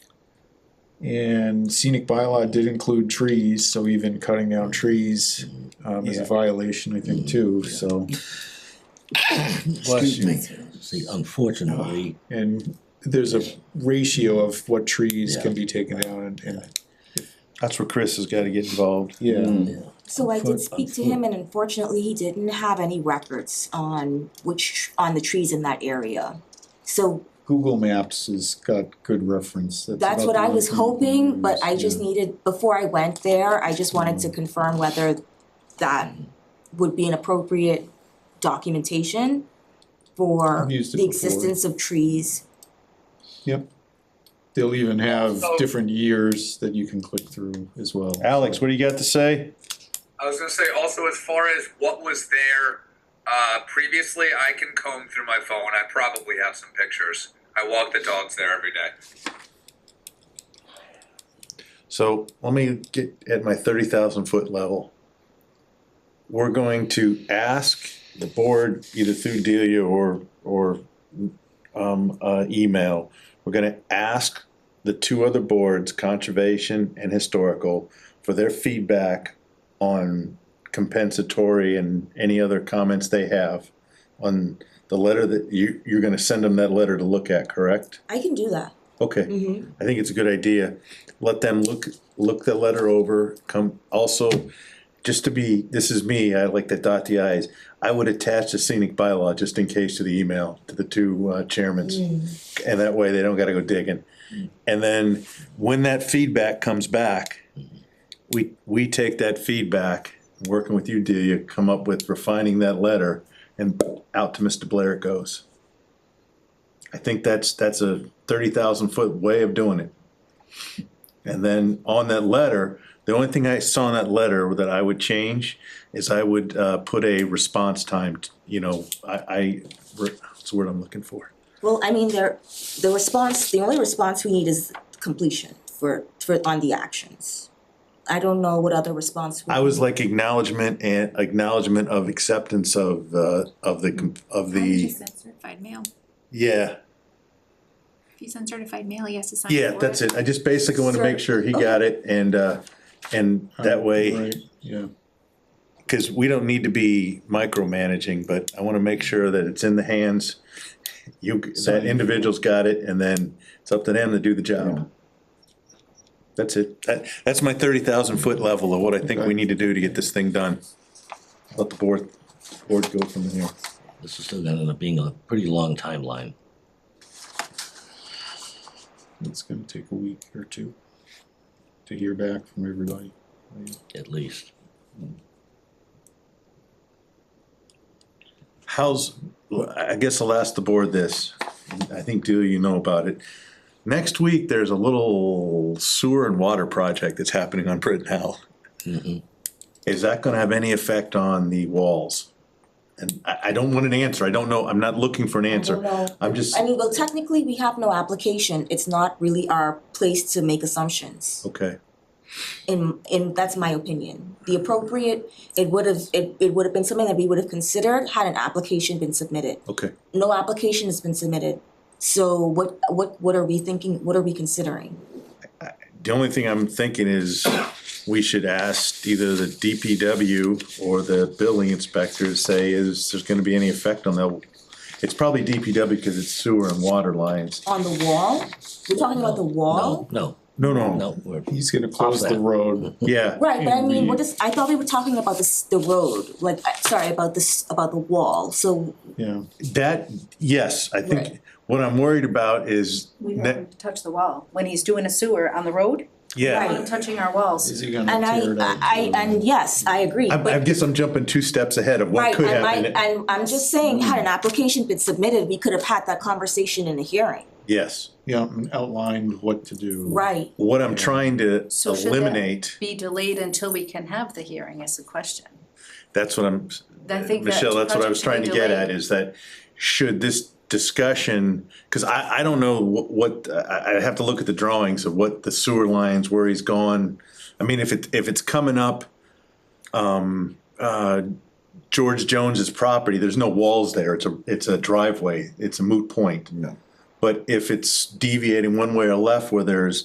And scenic bylaw did include trees, so even cutting down trees um, is a Yeah. violation, I think, too, so. Bless Excuse you. me. See, unfortunately, And there's a ratio of what trees Yeah. can be taken down Oh, and, and, That's where Chris has gotta get involved. Mm. yeah, So I did speak to him and unfortunately he didn't have any records on which, on the trees in that area. So Google Maps has got good reference. that's about what the I only was thing hoping, we but I use, just yeah. Mm-hmm. needed, before I went there, I just wanted to confirm whether that would be an appropriate documentation for I've used it the before. existence of trees. They'll even have different years that you can click through as well. Alex, what do you got to say? I was gonna say also as far as what was there uh, previously, I can comb through my phone. I probably have some pictures. I walk the dogs there every day. So let me get at my thirty thousand foot level. We're going to ask the board, either through Delia or, or, um, uh, email. We're gonna ask the two other boards, conservation and historical, for their feedback on compensatory and any other comments they have on the letter that you, you're gonna send them that letter to look at, correct? I can do that. Okay. Mm-hmm. I think it's a good idea. Let them look, look the letter over, come, also, just to be, this is me, I like to dot the i's. I would attach the scenic bylaw just in case to the email, to the two uh, chairmans. And that way they don't gotta go digging. And then when that feedback comes back, we, we take that feedback, working with you, Delia, come up with refining that letter and out to Mr. Blair it goes. I think that's, that's a thirty thousand foot way of doing it. And then on that letter, the only thing I saw in that letter that I would change is I would, uh, put a response time, you know, I, I, what's the word I'm looking for? Well, I mean, there, the response, the only response we need is completion for, for, on the actions. I don't know what other response. we I was like acknowledgement and acknowledgement of acceptance of, uh, of the, com- of Why would you the, send certified mail? yeah, If you send certified mail, he has to sign. yeah, for that's it. I just basically wanna make sure he got it and, uh, and that way. Right, yeah. because we don't need to be micromanaging, but I want to make sure that it's in the hands. You, that Signed. individual's got it, and then it's up to them to do the job. That's it. That, that's my thirty thousand foot level of what I think we need to do to get this thing done. Let the board, board go from here. this is still gonna end up being a pretty long timeline. It's gonna take a week or two to hear back from everybody. At least. How's, I guess I'll ask the board this, I think Delia, you know about it. Next week, there's a little sewer and water project that's happening on Brittenell. Mhm. Is that gonna have any effect on the walls? And I, I don't want an answer, I don't know, I'm not looking for an I don't answer, know. I'm just, I mean, well, technically, we have no application. It's not really our place to make assumptions. okay, In, in, that's my opinion. The appropriate, it would have, it, it would have been something that we would have considered had an application been submitted. okay. No application has been submitted. So what, what, what are we thinking, what are we considering? The only thing I'm thinking is, we should ask either the DPW or the building inspector to say, is there's gonna be any effect on that? It's probably DPW because it's sewer and water lines. On the wall? We're talking about the wall? No, No, no, no, no, we're, He's gonna close the that. road. yeah, Right, but I And mean, we- what is, I thought we were talking about this, the road, like, I- sorry, about this, about the wall. So Yeah, that, yes, I think, Right. what I'm worried about is, We ne- want him to touch the wall. When he's doing a sewer on the road, we want yeah. him touching our walls. is he gonna And I, tear it up? I, and yes, I agree, I, I but, guess I'm jumping two steps ahead of what right, could and happen. I, and I'm just saying, had an application been submitted, we could have had that conversation in a hearing, Yes, Yeah, and outlined what to do. right? what I'm trying to So should that- eliminate, Be delayed until we can have the hearing is the question. that's what I'm, I think that Michelle, that's what I was trying project to should be get at, delayed. is that should this discussion, cause I, I don't know wh- what, I, I have to look at the drawings of what the sewer lines, where he's gone. I mean, if it, if it's coming up, um, uh, George Jones's property, there's no walls there, it's a, it's a driveway, it's a moot point. No. But if it's deviating one way or left where there's